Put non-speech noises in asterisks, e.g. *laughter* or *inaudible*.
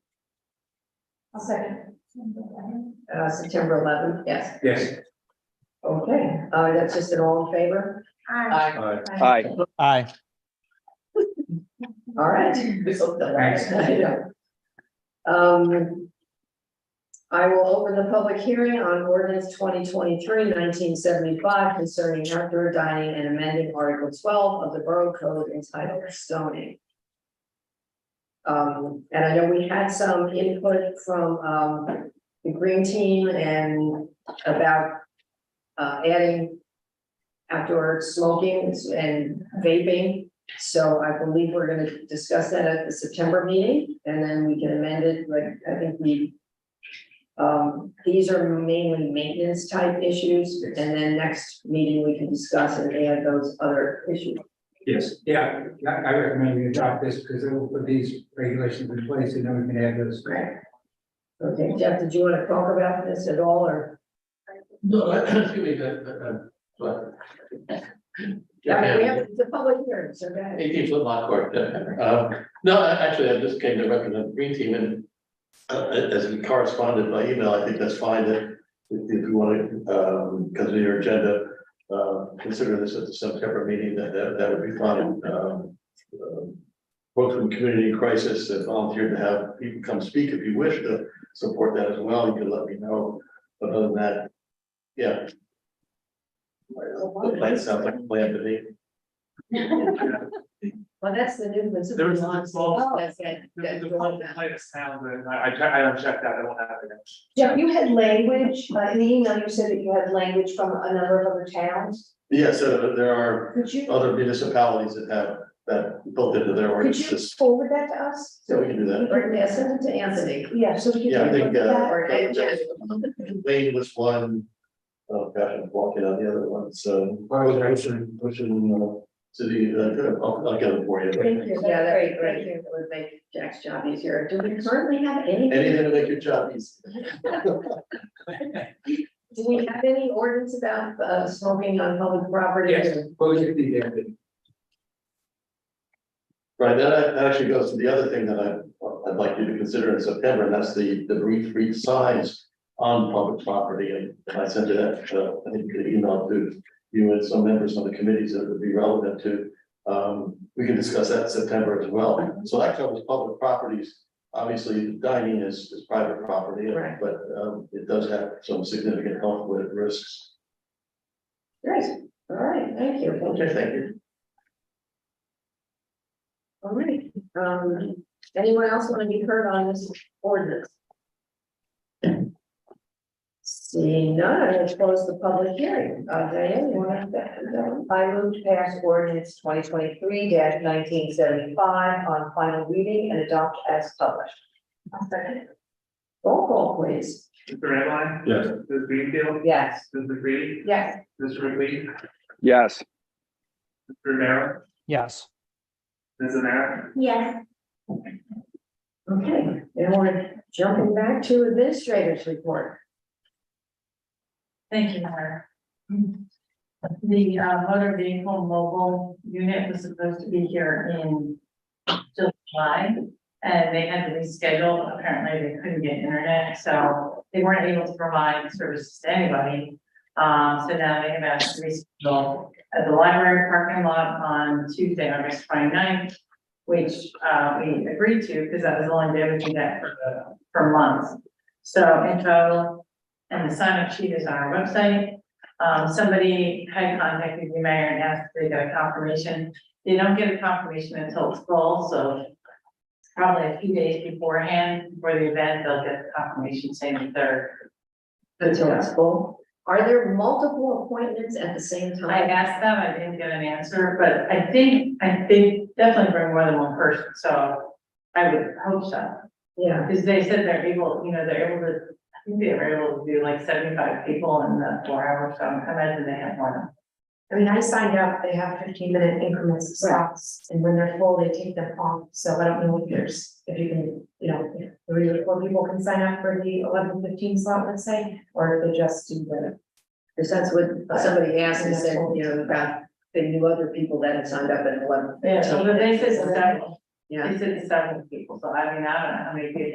I'll second. Uh, September eleventh, yes. Yes. Okay, uh, that's just an all in favor? Aye. Aye. Aye. Aye. All right. I know. Um. I will open the public hearing on ordinance 2023-1975 concerning outdoor dining and amending article twelve of the Borough Code entitled zoning. Um, and I know we had some input from, um, the green team and about, uh, adding outdoor smoking and vaping. So I believe we're gonna discuss that at the September meeting, and then we can amend it, like, I think we. Um, these are mainly maintenance type issues, and then next meeting we can discuss and add those other issues. Yes, yeah, I, I recommend we adopt this because it will put these regulations in place and then we can add those. Right. Okay, Jeff, did you wanna talk about this at all, or? No, *coughs* excuse me, the, the, uh, but. I mean, we have the public hearing, so go ahead. Eighteen foot lot court, yeah. Um, no, I- actually, I just came to recommend the green team and. Uh, as we corresponded by email, I think that's fine that if if you want to, um, consider your agenda. Uh, consider this at the September meeting, that, that, that would be fine, um. um, Folks from Community Crisis that volunteered to have people come speak if you wish to support that as well, you can let me know, but other than that. Yeah. The plan sounds like a plan to me. Well, that's the new one. Oh. There was a small- That's it. The, the one that played a sound, and I, I checked, I unchecked that, I don't have it. Jeff, you had language, uh, in the email you said that you had language from a number of other towns. Yes, uh, there are Could you, other municipalities that have that built into their could you ordinances, forward that to us? so we can do that. Or, yeah, send it to Anthony. Yeah, so we can. Yeah, I take a think, look at that. uh, Or, and Jeff, Lane was one. Oh gosh, I'm walking on the other one, so. I was pushing, pushing, uh, to the, uh, I'll, I'll get it for you. Thank you. Yeah, that'd be Thank great, you. it would make Jack's job easier. Do we currently have anything, Anything to make your job easy. do we have any ordinance about uh smoking on public property? Yes. or- What was it, the, Right, that that actually goes to the other thing that I, I'd like you to consider in September, and that's the, the brief, brief signs on public property, and I sent it, out, uh, I think, an email to you and some members on the committees that would be relevant to. Um, we can discuss that in September as well, so that covers public properties. Obviously, dining is, is private property, Right. but, um, it does have some significant health risks. Great, all right, thank you. Okay, thank you. All right, um, anyone else want to be heard on this ordinance? Seeing none, I will close the public hearing. Uh, Diane, you want to? I move to pass ordinance twenty twenty-three nineteen seventy-five on final reading and adopt as published. Roll call, please. Mr. Redline. Yes. Mr. Greenfield, Yes. Mr. McCready, Yes. Mr. McLean, Mr. Yes. Romero, Yes. Ms. Amer, Yes, Okay, and we're jumping back to administrators report. Thank you, Myra. The uh, motor vehicle mobile unit was supposed to be here in July. And they had to reschedule, apparently they couldn't get internet, so they weren't able to provide services to anybody. Um, so now they have asked to reschedule at the library parking lot on Tuesday, August 29th, Which uh, we agreed to, because that was the only day we could get for, the- for months. So in total, and the sign up sheet is on our website. Um, somebody had contacted the mayor and asked if they got a confirmation. They don't get a confirmation until it's full, so it's probably a few days beforehand, before the event, they'll get the confirmation saying that they're. Until it's full. Are there multiple appointments at the same I time? asked them, I didn't get an answer, but I think, I think definitely bring more than one person, so I would hope so. Yeah, Because they said they're able, you know, they're able to, I think they were able to do like seventy-five people in the four hours, so I imagine they have more than I mean, I signed up, they have fifteen minute increments of stops, and when they're full, they take them off, so I don't know if there's, if you can, you know, if three or four people can sign up for the eleven fifteen slot, let's say, or if they just do the. because that's what somebody asked and said, you know, about they knew other people that had signed up at eleven. Yeah, so but they said Yeah. several, they said several people, so I mean, I don't know how many people.